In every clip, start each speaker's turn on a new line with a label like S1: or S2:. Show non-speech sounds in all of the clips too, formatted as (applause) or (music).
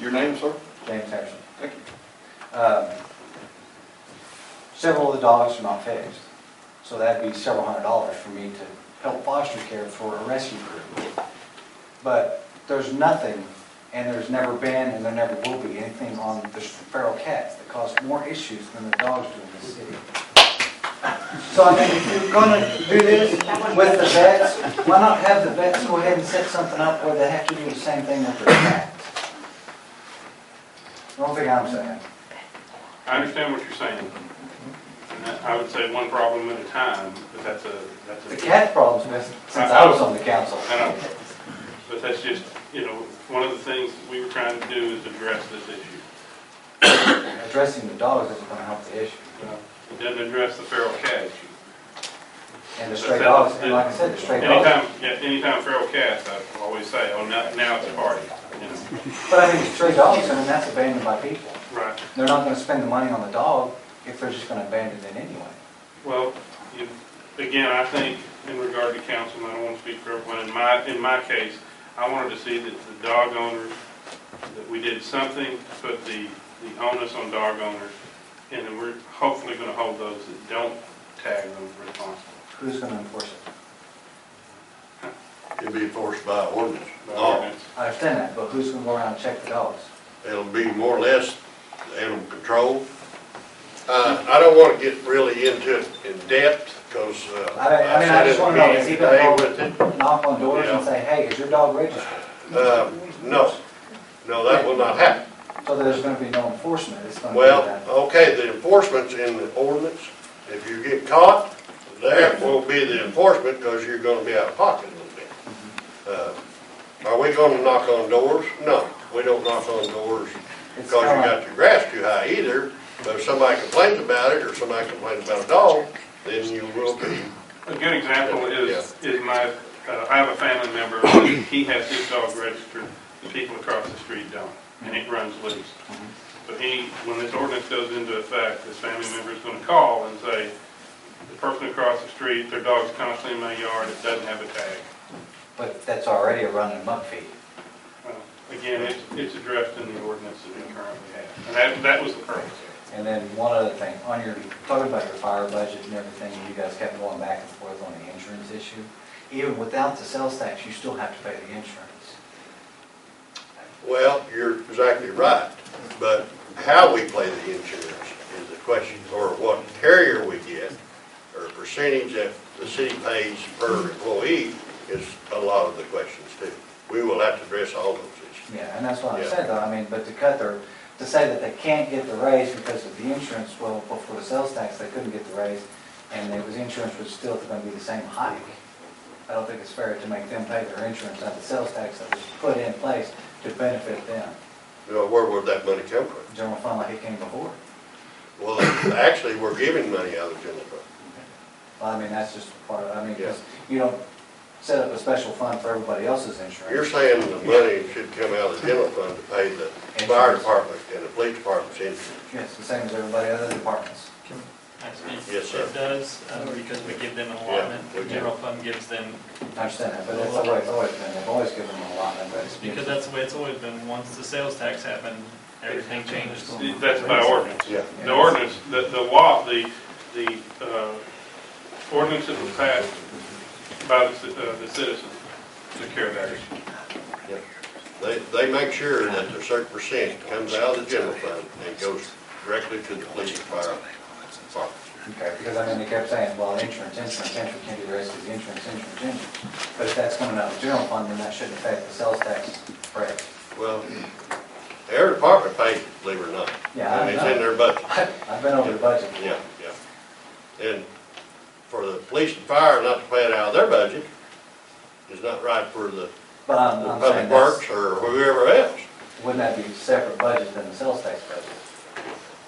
S1: Your name, sir?
S2: James Henderson.
S1: Thank you.
S2: Um, Several of the dogs are not fixed, so that'd be several hundred dollars for me to help foster care for a rescue group. But there's nothing, and there's never been, and there never will be, anything on the feral cats that cause more issues than the dogs do in this city. So I mean, if you're gonna do this with the vets, why not have the vets go ahead and set something up where they have to do the same thing with their cats? Don't think I'm saying.
S3: I understand what you're saying. And that- I would say one problem at a time, but that's a, that's a.
S2: The cat problem's been since I was on the council.
S3: I know, but that's just, you know, one of the things we were trying to do is address this issue.
S2: Addressing the dogs isn't gonna help the issue.
S3: It doesn't address the feral cat issue.
S2: And the stray dogs, and like I said, the stray dogs.
S3: Anytime, yeah, anytime feral cats, I always say, oh, now, now it's a party, you know,
S2: But I mean, the stray dogs, I mean, that's abandoned by people.
S3: right?
S2: They're not gonna spend the money on the dog if they're just gonna abandon it anyway.
S3: Well, you- again, I think in regard to council, and I don't want to speak for everyone, in my, in my case, I wanted to see that the dog owners, that we did something to put the, the onus on dog owners, and then we're hopefully going to hold those that don't tag them responsible.
S2: Who's gonna enforce it?
S4: It'll be enforced by ordinance.
S3: by
S4: Oh,
S3: ordinance.
S2: I understand that, but who's gonna go around and check the dogs?
S4: it'll be more or less animal control. Uh, I don't wanna get really into it in depth, cause, uh.
S2: I mean, I mean, I
S4: sat
S2: just
S4: in a
S2: wanna know,
S4: meeting
S2: is he gonna
S4: today with
S2: go knock on doors and say, hey, is your dog registered?
S4: it. Uh, no, no, that will not happen.
S2: So there's gonna be no enforcement, it's gonna be
S4: Well,
S2: that.
S4: okay, the enforcement's in the ordinance. If you get caught, there will be the enforcement, because you're gonna be out of pocket a little bit. Uh, Are we gonna knock on doors? No, we don't knock on doors
S2: It's
S4: because you
S2: kinda
S4: got your grass too high either. But if somebody complains about it, or somebody complains about a dog, then you will be,
S3: A good example is, is my, uh, I have a family member, (coughs) he has his dog registered, the people across the street don't, and it runs loose. But he, when this ordinance goes into effect, this family member is gonna call and say, the person across the street, their dog's constantly in my yard, it doesn't have a tag.
S2: But that's already a running muck fee.
S3: Uh, Again, it's, it's addressed in the ordinance that we currently have, and that, that was the purpose.
S2: And then one other thing, on your, talking about your fire budget and everything, you guys kept going back and forth on the insurance issue. Even without the sales tax, you still have to pay the insurance.
S4: well, you're exactly right. But how we play the insurance is the question, or what carrier we get, or percentage that the city pays per employee is a lot of the questions too. We will have to address all those issues.
S2: Yeah, and that's what I
S4: Yeah.
S2: said though, I mean, but to cut their, to say that they can't get the raise because of the insurance, well, before the sales tax, they couldn't get the raise, and it was, insurance was still gonna be the same hike. I don't think it's fair to make them pay their insurance out of the sales tax that was put in place to benefit them.
S4: You know, where would that money come from?
S2: General fund like it came before.
S4: Well, actually, we're giving money out of the general fund.
S2: Well, I mean, that's just part of, I mean, because you don't set up a special fund for everybody else's
S4: You're
S2: insurance.
S4: saying the money should come out of the general fund to pay the fire department and the police department's insurance?
S2: It's the same as everybody other departments.
S5: Actually,
S4: Yes, sir.
S5: It does, uh, because we give them an
S4: Yeah,
S5: allotment, the
S4: we do.
S5: general fund gives them,
S2: I understand that, but that's the way it's always been. They've always given them a lot, and that's.
S5: because that's the way it's always been, once the sales tax happened, everything changes.
S3: That's by ordinance.
S4: Yeah.
S3: The ordinance, the, the law, the, the uh, ordinance that was passed by the, ci- uh, the citizens to carry that issue.
S4: They, they make sure that a certain percent comes out of the general fund and goes directly to the police and fire department.
S2: Okay, because I mean, they kept saying, well, insurance, insurance, insurance can't be raised because the insurance, insurance, insurance. But if that's coming out of the general fund, then that shouldn't affect the sales tax rate.
S4: Well, every department pays, it, believe it or not.
S2: Yeah, I
S4: And It's
S2: know.
S4: in their budget.
S2: I've been over the budget.
S4: Yeah, yeah. And for the police and fire not to pay it out of their budget is not right for the
S2: But I'm,
S4: the
S2: I'm
S4: public
S2: saying that's,
S4: works or whoever else.
S2: wouldn't that be separate budget than the sales tax budget?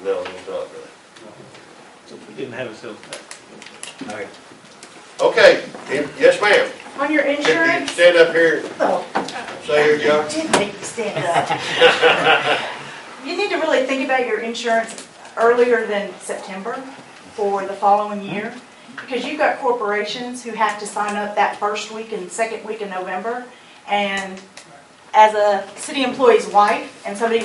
S4: No, it's not really.
S6: We didn't have a sales tax.
S2: Okay.
S4: Okay, yes, ma'am.
S7: On your
S4: Can you
S7: insurance?
S4: stand up here
S7: Oh,
S4: and say who you are?
S7: did make you stand up. You need to really think about your insurance earlier than September for the following year. Because you've got corporations who have to sign up that first week and second week in November. And as a city employee's wife and somebody